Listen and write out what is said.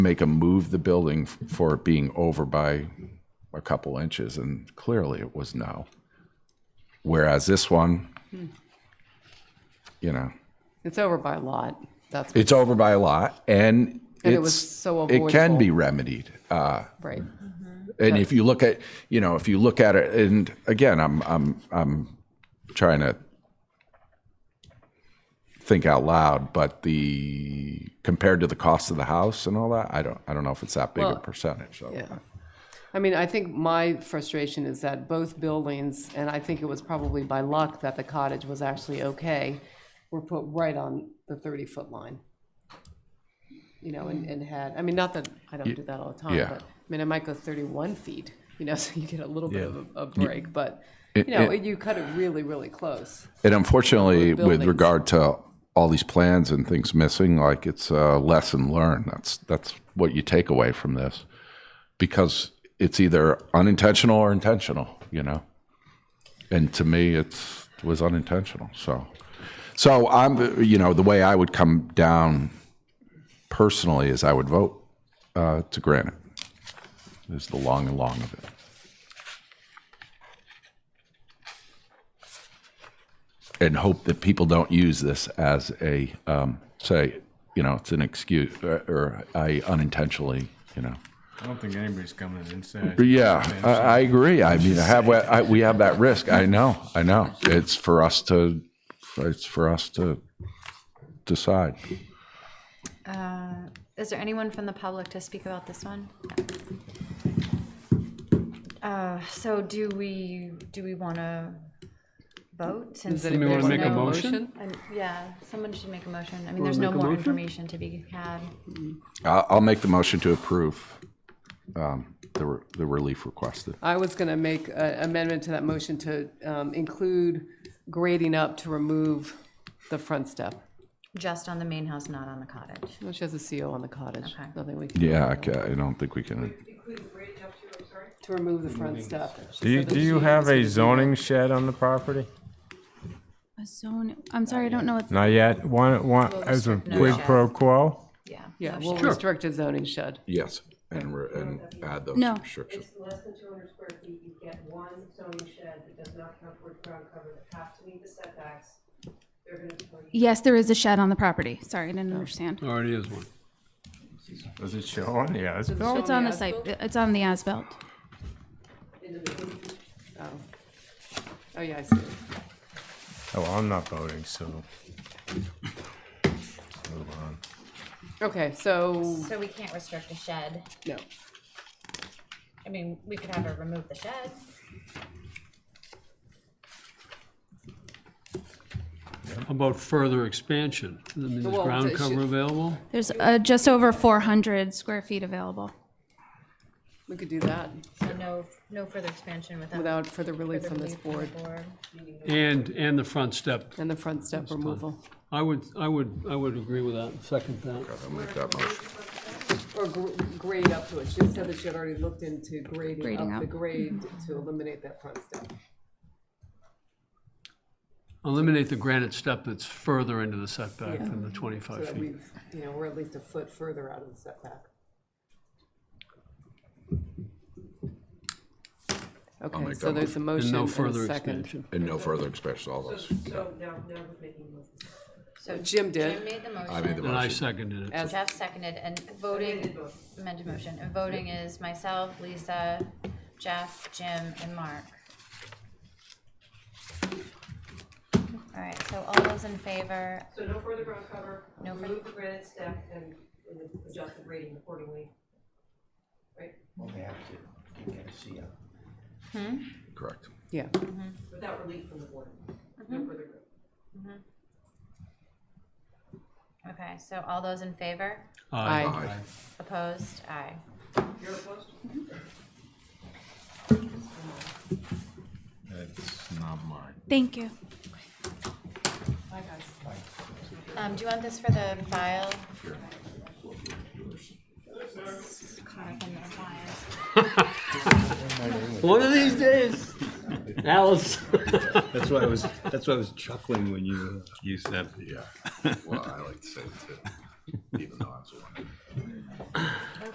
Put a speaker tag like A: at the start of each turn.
A: make them move the building f- for it being over by a couple inches, and clearly it was no. Whereas this one, you know,
B: It's over by a lot. That's
A: it's over by a lot, and
B: And
A: it's,
B: it was so
A: it can
B: avoidable.
A: be remedied. Uh,
B: right.
A: and if you look at, you know, if you look at it, and again, I'm I'm I'm trying to think out loud, but the compared to the cost of the house and all that, I don't I don't know if it's that big a percentage. So.
B: Yeah. I mean, I think my frustration is that both buildings, and I think it was probably by luck that the cottage was actually okay, were put right on the 30-foot line. You know, and, and had, I mean, not that I don't do that all the time,
A: yeah.
B: but, I mean, I might go 31 feet, you know, so you get a little bit of a- a break, but, you
A: It-
B: know,
A: it-
B: you cut it really, really close.
A: And unfortunately, with
B: buildings.
A: regard to all these plans and things missing, like it's a lesson learned. That's that's what you take away from this, because it's either unintentional or intentional, you know. And to me, it's it was unintentional. So, so I'm you know the way I would come down personally is I would vote uh, to grant it. Is the long and long of it. and hope that people don't use this as a um, say, you know, it's an excuse or, or I unintentionally, you know.
C: I don't think anybody's coming inside.
A: But yeah, I, I agree. I mean, I have I, we have that risk. I know, I know. It's for us to, it's for us to decide.
D: Is there anyone from the public to speak about this one? Uh, so do we, do we want to vote? Since
B: Does
D: there's
B: anybody
C: wanna make a
D: no-
C: motion?
D: um, Yeah, someone should make a motion. I mean, there's no more information to be had.
A: I'll, I'll make the motion to approve um, the re- the relief requested.
B: I was going to make an amendment to that motion to um, include grading up to remove the front step.
D: Just on the main house, not on the cottage.
B: No, she has a CO on the cottage.
D: Okay.
B: Nothing we can,
A: Yeah, I, ca- I don't think we can.
B: to remove the front step. She
C: Do you,
B: said that
C: do you
B: she
C: have
B: was-
C: a zoning shed on the property?
E: A zone, I'm sorry, I don't know what,
C: Not yet. One, one, as a
D: no
C: quid
D: shed.
C: pro quo?
D: Yeah.
B: Yeah,
D: no
B: we'll
D: shed.
B: restrict a zoning shed.
A: Yes, and re- and add those
E: No.
A: restrictions.
F: It's less than two hundred square feet, you get one zoning shed that does not count towards ground cover, that has to meet the setbacks. They're gonna tell you,
E: yes, there is a shed on the property. Sorry, I didn't understand.
G: Already is one.
C: Does it show on? Yeah, it's built.
E: It's on the site, it's on the as-built.
B: Oh, Oh, yeah, I see.
C: Oh, I'm not voting, so. Move on.
B: Okay, so,
D: So we can't restrict the shed.
B: no.
D: I mean, we could have her remove the shed.
G: How about further expansion? I mean, there's
B: Well,
G: ground
B: it
G: cover
B: should-
G: available?
E: There's uh, just over 400 square feet available.
B: We could do that
D: So no, no further expansion without.
B: without further relief
D: further
B: from this
D: relief from the
B: board
D: board.
G: And, and the front step.
B: and the front step removal.
G: I would, I would, I would agree with that, second that.
A: I'll make that motion.
B: Or gr- grade up to it. She said that she had already looked into grading
E: Grading
B: up the
E: up.
B: grade to eliminate that front step.
G: Eliminate the granite step that's further into the setback than the
B: So
G: 25
B: that
G: feet.
B: we've, you know, we're at least a foot further out of the setback. Okay,
A: make
B: so
A: that
B: there's a
G: And
B: motion
G: no
B: and a
G: further
B: second.
G: expansion.
A: And no further expansion. All those.
F: so now, now we're making a motion.
D: So
B: Jim did.
D: Jim made the motion.
A: I made the
G: And I
A: motion.
G: seconded it.
B: As-
D: Jeff seconded, and voting, amended motion, and voting is myself, Lisa, Jeff, Jim, and Mark. All right, so all those in favor,
F: So no further ground cover,
D: No further-
F: remove the granite step and and adjust the grading accordingly. Right,
H: Well, they have to, they gotta see it.
A: Correct.
B: Yeah,
F: without relief from the board, no further. growth.
D: okay, so all those in favor,
G: Aye.
B: Aye.
D: opposed, aye.
F: You're opposed?
C: That's not mine.
E: Thank you.
D: Um, do you want this for the file? Conic in their files.
G: One of these days, Alice.
I: That's why I was. That's why I was chuckling when you used that.
A: Yeah. Well, I like to say it too.